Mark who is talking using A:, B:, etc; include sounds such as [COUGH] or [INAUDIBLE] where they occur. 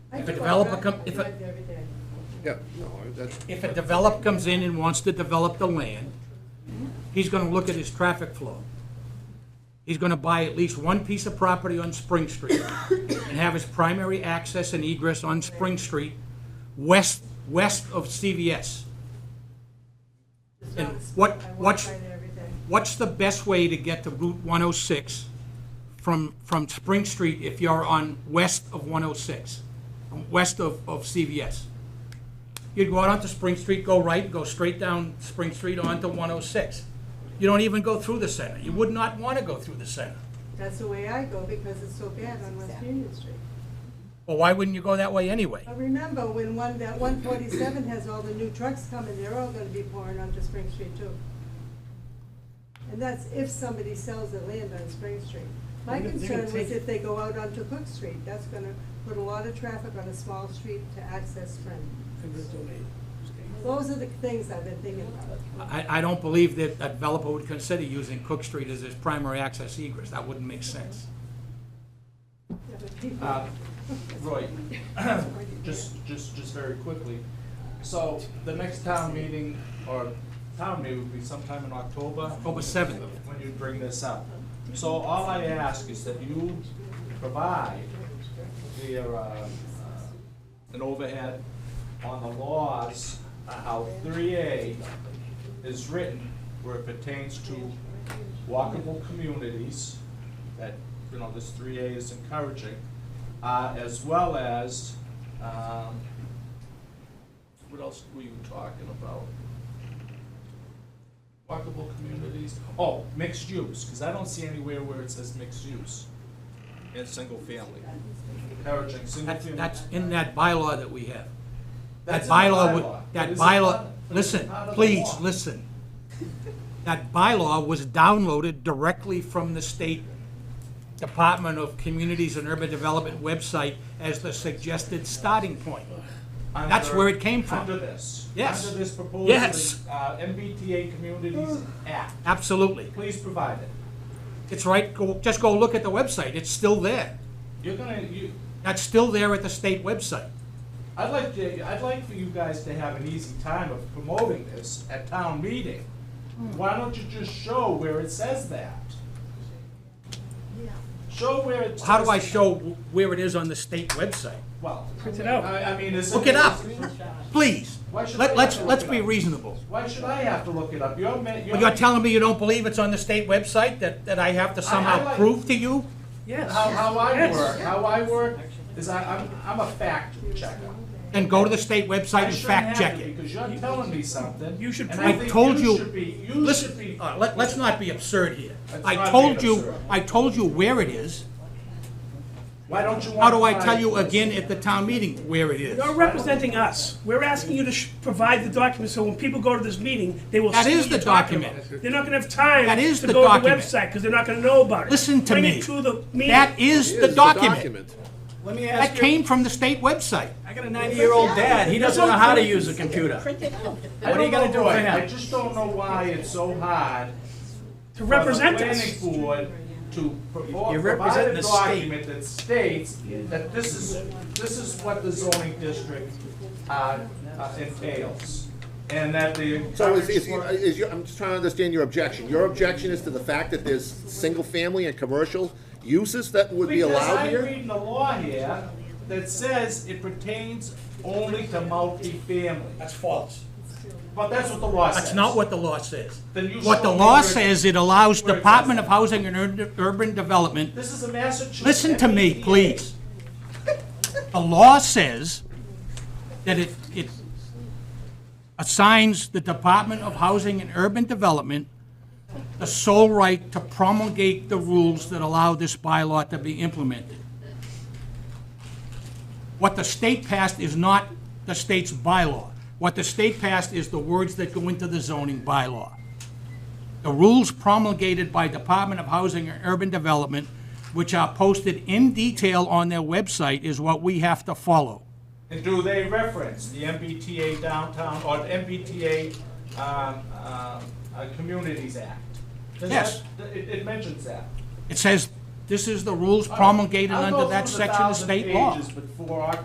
A: If
B: do
A: a
B: I
A: developer
B: drive-
A: come,
B: I
A: if a,
B: drive every day.
C: Yeah, no, that's,
A: if a developer comes in and wants to develop the land, he's gonna look at his traffic flow. He's gonna buy at least one piece of property on Spring Street and have his primary access and egress on Spring Street, west, west of CVS.
B: It's
A: And
B: not-
A: what-
B: I walk
A: what's-
B: by there every day.
A: What's the best way to get to Route 106 from, from Spring Street if you're on west of 106, west of, of CVS? You'd go out onto Spring Street, go right, go straight down Spring Street onto 106. You don't even go through the center. You would not want to go through the center.
B: That's the way I go because it's so bad on West Union Street.
A: Well, why wouldn't you go that way anyway?
B: I remember when one, that one forty-seven has all the new trucks coming, they're all gonna be pouring onto Spring Street too. And that's if somebody sells the land on Spring Street. My
D: They're gonna- they're gonna
B: concern was
D: take it.
B: if they go out onto Cook Street, that's gonna put a lot of traffic on a small street to access Spring.
D: I'm gonna donate.
B: Those are the things I've been thinking about.
A: I, I don't believe that a developer would consider using Cook Street as his primary access egress. That wouldn't make sense.
B: Yeah, but people-
E: Uh, Roy, [CLEARS THROAT] just, just, just very quickly, so the next town meeting, or town meeting would be sometime in October?
A: October 7th.
E: When you bring this up. So all I ask is that you provide the, uh, uh, an overhead on the laws, uh, how three A is written, where it pertains to walkable communities, that, you know, this three A is encouraging, uh, as well as, um, what else were you talking about? Walkable communities, oh, mixed use, cause I don't see anywhere where it says mixed use in single family, encouraging single
A: That's,
E: family.
A: that's in that bylaw that we have. That
E: That's in the
A: bylaw, would-
E: bylaw, but
A: that
E: is it
A: bylaw,
E: not- but is it
A: listen,
E: not in the
A: please,
E: law?
A: listen. That bylaw was downloaded directly from the state Department of Communities and Urban Development website as the suggested starting point. That's
E: under-
A: where it came from.
E: Under this.
A: Yes.
E: Under this proposal.
A: Yes.
E: Uh, MBTA Communities Act.
A: Absolutely.
E: Please provide it.
A: It's right, go, just go look at the website, it's still there.
E: You're gonna, you,
A: That's still there at the state website.
E: I'd like to, I'd like for you guys to have an easy time of promoting this at town meeting. Why don't you just show where it says that? Show where it says.
A: How do I show wh- where it is on the state website?
E: Well.
D: Print it out.
E: I, I mean, is it?
A: Look it up, please.
E: Why should I
A: Let,
E: have
A: let's,
E: to look
A: let's
E: it
A: be
E: up?
A: reasonable.
E: Why should I have to look it up? You're, ma- you're.
A: Well, you're telling me you don't believe it's on the state website, that, that I have to
E: I
A: somehow
E: like-
A: prove to you?
D: Yes.
E: How, how I
D: Yes.
E: work, how I work is I, I'm, I'm a fact checker.
A: And go to the state website
E: I
A: and
E: shouldn't
A: fact
E: have
A: check
E: to
A: it?
E: Because you're telling me something.
D: You should
E: and
D: prove-
A: I
E: think
A: told you-
E: should be, you should be.
A: Listen, uh, let, let's not be absurd here.
E: Let's
A: I
E: not be
A: told you,
E: absurd.
A: I told you where it is.
E: Why don't you want?
A: How do I
E: to
A: tell you
E: find-
A: again at the town meeting where it is?
D: You're representing us. We're asking you to sh- provide the document, so when people go to this meeting, they will see
A: That
D: what
A: is
D: you're
A: the
D: talking
A: document.
D: about. They're not gonna have time
A: That is
D: to
A: the
D: go to the
A: document.
D: website, because they're not gonna know about it.
A: Listen to
D: Bring
A: me.
D: it to the
A: That
D: meeting.
A: is the
C: It is
A: document.
F: Let me
A: That
F: ask you,
A: came from the state website.
F: I got a 90-year-old dad, he doesn't know how to use a
E: I
F: computer. What are
E: don't
F: you gonna do
E: know
F: for
E: why. I
F: him?
E: just don't know why it's so hard.
D: To represent
E: for the
D: us.
E: Planning board to pro-
F: You're
E: provide
F: representing
E: a
F: the state.
E: document that states that this is, this is what the zoning district, uh, uh, entails. And that the.
C: so is, is, is your, I'm just trying to understand your objection. Your objection is to the fact that there's single-family and commercial uses that would be allowed
E: Because I'm
C: here?
E: reading the law here that says it pertains only to multifamily,
A: That's false.
E: but that's what the law says.
A: That's not what the law says.
E: Then you
A: What
E: show
A: the
E: me
A: law
E: where-
A: says, it allows
E: where it says
A: Department of
E: that.
A: Housing and Ur- Urban Development
E: This is a Massachusetts. E
A: Listen to me, please. The law says that it, it assigns the Department of Housing and Urban Development the sole right to promulgate the rules that allow this bylaw to be implemented. What the state passed is not the state's bylaw. What the state passed is the words that go into the zoning bylaw. The rules promulgated by Department of Housing and Urban Development, which are posted in detail on their website, is what we have to follow.
E: And do they reference the MBTA downtown or the MBTA um, um, uh, Communities Act? Does
A: Yes.
E: that- It, it mentions that.
A: It says, this is the rules promulgated
E: I'll go
A: under that
E: through the
A: section of
E: 1,000
A: state law.
E: pages Before I